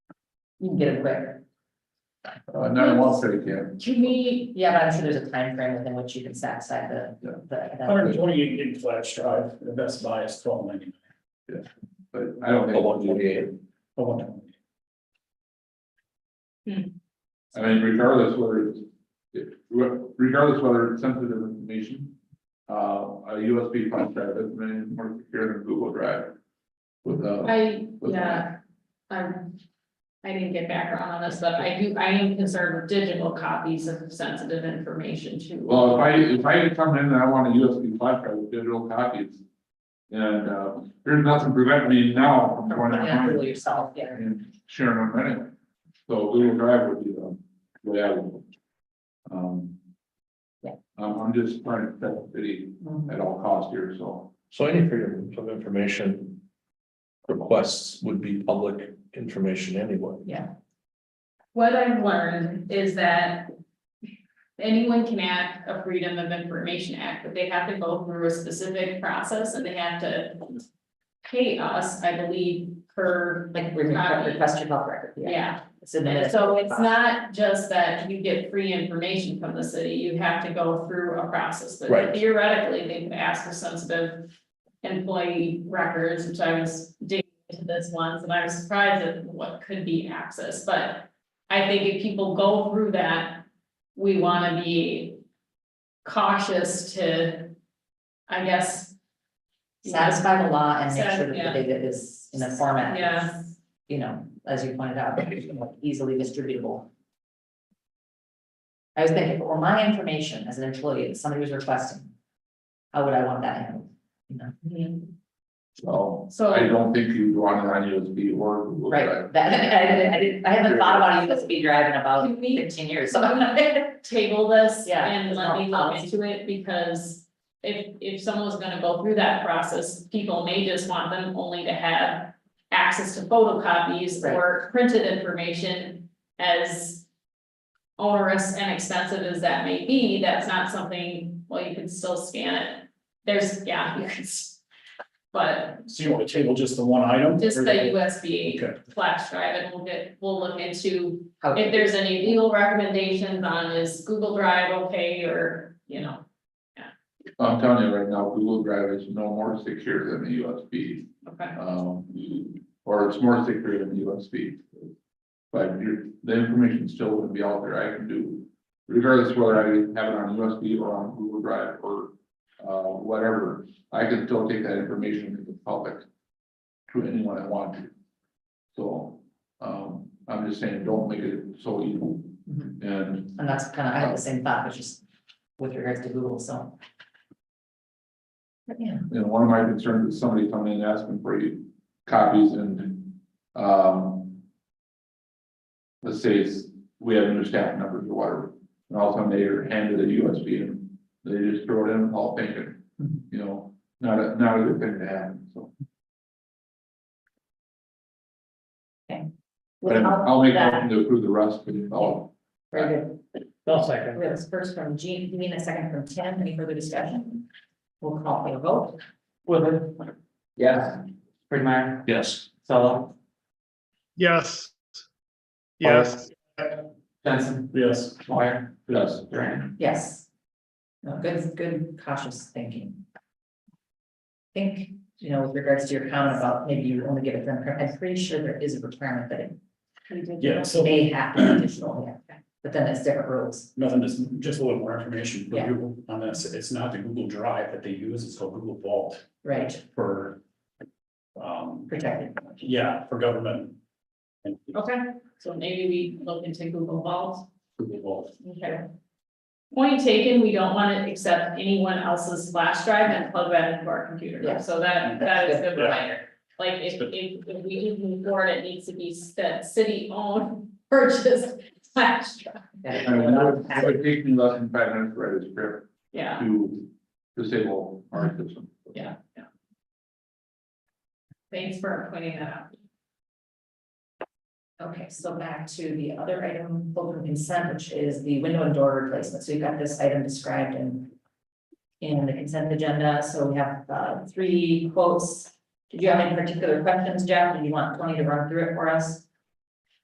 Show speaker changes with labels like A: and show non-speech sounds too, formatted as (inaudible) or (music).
A: You can get it quick.
B: Uh, nine one thirty, yeah.
A: To me, yeah, but I'm sure there's a time frame within which you can set aside the,
B: Yeah.
A: the- the.
C: Hundred and twenty-eight gig flash drive, the best buy is twelve ninety-nine,
B: But I don't think.
D: want to do
C: a one twenty.
B: I mean, regardless whether it's, if- regardless whether it's sensitive information. Uh, a USB flash drive is many more secure than Google Drive. With uh
E: I,
B: with-
E: yeah, I'm, I didn't get background on this, but I do, I am concerned with digital copies of sensitive information too.
B: well, if I, if I come in and I want a USB flash drive with digital copies. And, uh, there's nothing preventing me now from going
A: Yeah,
B: online
A: Google yourself, yeah.
B: and sharing them anyway. So Google Drive would be the way I would. go. Um.
A: Yeah.
B: I'm, I'm just trying to protect the city
A: Mhm.
B: at all costs here, so.
D: So any freedom of information requests would be public information anyway.
E: What I've learned is that anyone can act a Freedom of Information Act, but they have to go through a specific process and they have to pay us, I believe, per,
A: Like, we
E: Copy.
A: request your health record, yeah.
E: yeah,
A: Submit it.
E: So it's not just that you get free information from the city, you have to go through a process, but
D: Right.
E: theoretically, they could ask for sensitive. Employee records, which I was digging into this once, and I was surprised at what could be accessed, but. I think if people go through that, we wanna be cautious to, I guess.
A: Satisfy the law and make sure
E: Yeah.
A: that the data is in a format. that's,
E: Yeah.
A: You know, as you pointed out, easily distributable. I was thinking, well, my information as an employee, that somebody was requesting. How would I want that handled, you know?
B: So
E: So-
B: I don't think you want it on USB or Google Drive.
A: Right, that, (laughs) I didn't, I didn't, I haven't thought about a USB drive in about
E: (laughs) Can we-
A: fifteen years, so.
E: So table this
A: Yeah,
E: and
A: it's
E: let
A: not
E: me look
A: policy.
E: into it because if, if someone's gonna go through that process, people may just want them only to have access to photocopies
A: Right.
E: or printed information as onerous and expensive as that may be, that's not something, well, you can still scan it. There's, yeah, (laughs) you can, s- but
C: So you want to table just the one item?
E: just
C: or
E: the
C: the-
E: USB
C: Okay.
E: flash drive and we'll get, we'll look into
A: How,
E: if there's any legal recommendations on is Google Drive okay or, you know,
B: I'm telling you right now, Google Drive is no more secure than the USB.
E: okay.
B: Um, or it's more secure than the USB. But your, the information still would be out there. I can do regardless whether I have it on USB or on Google Drive or uh, whatever, I can still take that information to the public to anyone I want to. So, um, I'm just saying, don't make it so evil.
A: Mhm.
B: And
A: and that's kind of, I had the same thought, but just with regards to Google, so. But yeah,
B: you know, one of my concerns is somebody coming in asking for you copies and, um. Let's say it's, we have new staff members or whatever, and all of a sudden they are handed a USB and they just throw it in, all thinking, you know, not a, not a good thing to happen, so. But
A: without
B: I'll make
A: that-
B: them to approve the rest, but all,
A: Very good.
C: I'll second.
A: We have this first from Jean, you mean a second from Tim, any further discussion? We'll call for a vote.
F: Woodland,
A: Yes.
F: Bridgemeyer,
D: Yes.
F: Solo,
G: Yes. Yes.
F: Johnson,
C: Yes,
F: Moyer,
B: yes,
F: Duran.
A: Yes. No, good, good cautious thinking. Think, you know, with regards to your comment about maybe you only give it them, I'm pretty sure there is a requirement that it.
C: Yeah, so-
A: May have to be additional, yeah, but then it's different rules,
C: nothing, just, just a little more information for
A: Yeah.
C: Google on this, it's not the Google Drive that they use, it's called Google Vault
A: right,
C: for. Um,
A: protected.
C: yeah, for government. And
E: Okay, so maybe we look into Google Vault,
C: Google Vault,
E: okay. Point taken, we don't want to accept anyone else's flash drive and plug that into our
A: Yeah.
E: computer, so that, that is a good
C: Yeah.
E: reminder. Like, if, if, if we do move forward, it needs to be that city-owned (laughs) purchased flash drive,
B: I mean, it would, it would take me less than five minutes to write a script
E: yeah.
B: to disable our system.
E: Yeah, yeah. Thanks for pointing that out.
A: Okay, so back to the other item, open consent, which is the window and door replacement, so you've got this item described in. In the consent agenda, so we have uh three quotes. Did you have any particular questions, Jeff, did you want Tony to run through it for us?